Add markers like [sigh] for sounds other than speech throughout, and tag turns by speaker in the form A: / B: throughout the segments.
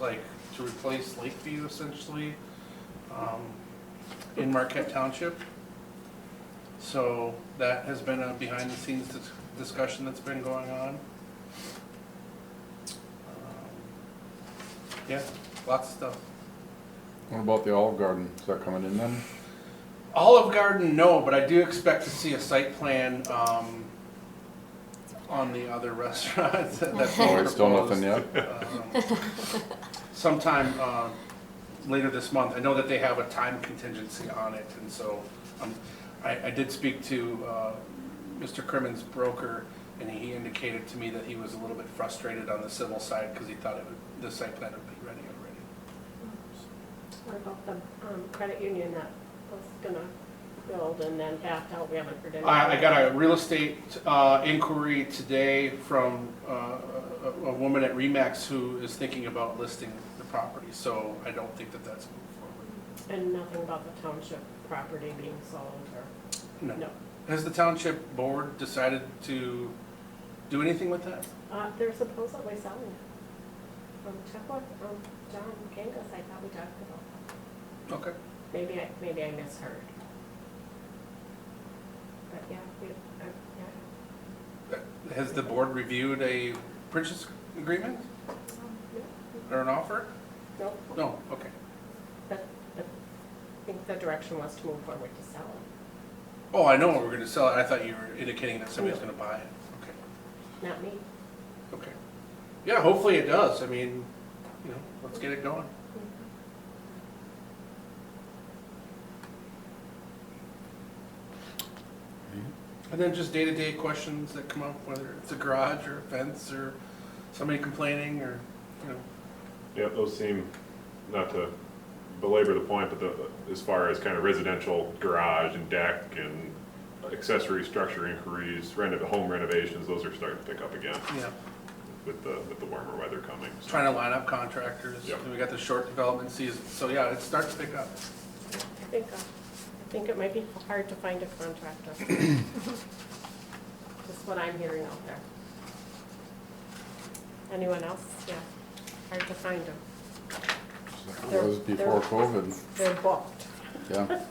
A: like to replace Lakeview essentially, um, in Marquette Township. So that has been a behind the scenes dis- discussion that's been going on. Um, Yeah, lots of stuff.
B: What about the Olive Garden? Is that coming in then?
A: Olive Garden, no, but I do expect to see a site plan, um, on the other [laughs] restaurants that- that's
B: Oh,
A: being
B: it's still nothing
A: proposed.
B: yet?
A: Um, Sometime, uh, later this month, I know that they have a time contingency on it, and so, um, I, I did speak to, uh, Mr. Crimmins' broker, and he indicated to me that he was a little bit frustrated on the civil side, because he thought it would, the site plan would be ready already.
C: What about the um, credit union that was gonna build and then backed out, we haven't heard anything?
A: I, I got a real estate uh, inquiry today from uh, a, a woman at Remax who is thinking about listing the property, so I don't think that that's moved
C: And nothing about the township property being sold or,
A: forward.
C: no.
A: No. Has the township board decided to do anything with that?
C: Uh, They're supposedly selling it. Um, Check with um, John Gangus, I thought we talked about that.
A: Okay.
C: Maybe I, maybe I misheard. But yeah, we, uh, yeah.
A: Has the board reviewed a purchase agreement
C: Um, no,
A: or an offer?
C: Nope,
A: No, okay.
C: but, but I think the direction was to move forward to sell
A: Oh, I know, we're gonna sell it. I thought you were indicating that somebody's gonna buy it. Okay.
C: it, not me.
A: Okay. Yeah, hopefully it does. I mean, you know, let's get it going. And then just day-to-day questions that come up, whether it's a garage or a fence or somebody complaining or, you know.
D: Yeah, those seem, not to belabor the point, but the, as far as kind of residential garage and deck and accessory structure inquiries, renov, home renovations, those are starting to pick up again
A: Yeah,
D: with the, with the warmer weather coming. so.
A: trying to line up contractors.
D: Yep.
A: And We got the short development season, so yeah, it starts to pick up.
C: I think, uh, I think it might be hard to find a
B: [clears throat]
C: contractor. That's what I'm hearing out there. Anyone else? Yeah, hard to find them.
B: It's like It was before COVID,
C: They're booked.
B: yeah.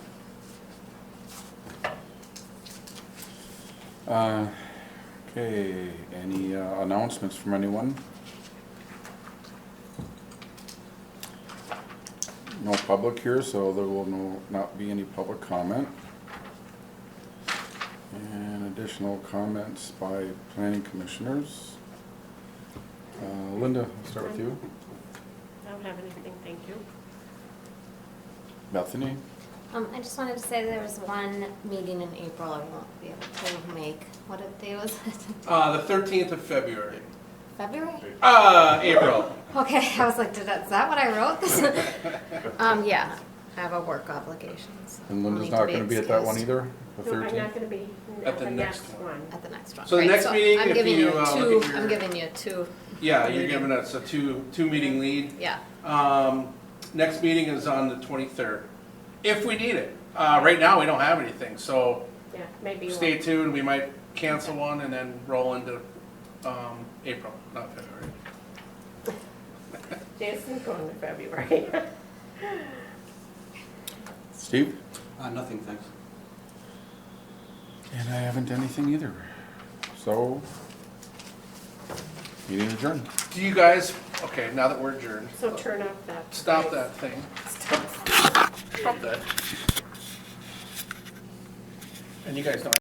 B: Uh, Okay, any uh, announcements from anyone? No public here, so there will no- not be any public comment. And additional comments by planning commissioners. Uh, Linda, I'll start with you.
C: I don't have anything, thank you.
B: Bethany?
E: Um, I just wanted to say there was one meeting in April I won't be able to make. What day was it? [laughs]
A: Uh, the thirteenth of February,
E: February?
A: uh, April.
E: Okay, I was like, did that, is that what I wrote? [laughs] Um, yeah, I have a work obligation, so.
B: And
E: I'll
B: Linda's
E: need to
B: not
E: be
B: gonna be at that one
E: excused
B: either, the
C: No, I'm not
B: thirteenth?
C: gonna be
A: At
C: at
A: the
C: the
A: next
C: next one.
E: At the next one.
A: So the
E: Right,
A: next meeting,
E: I'm
A: if
E: giving
A: you,
E: you
A: uh, look
E: two,
A: at your-
E: I'm giving you two,
A: Yeah, you're giving us a two, two-meeting lead.
E: yeah.
A: Um, next meeting is on the twenty-third, if we need it. Uh, right now, we don't have anything, so
C: Yeah, maybe one.
A: stay tuned. We might cancel one and then roll into, um, April, not February.
C: Jason's going to February. [laughs]
B: Steve?
F: Uh, nothing, thanks.
B: And I haven't anything either. So, meeting adjourned.
A: Do you guys, okay, now that we're adjourned,
C: So turn off that.
A: stop that thing. Stop that. And you guys don't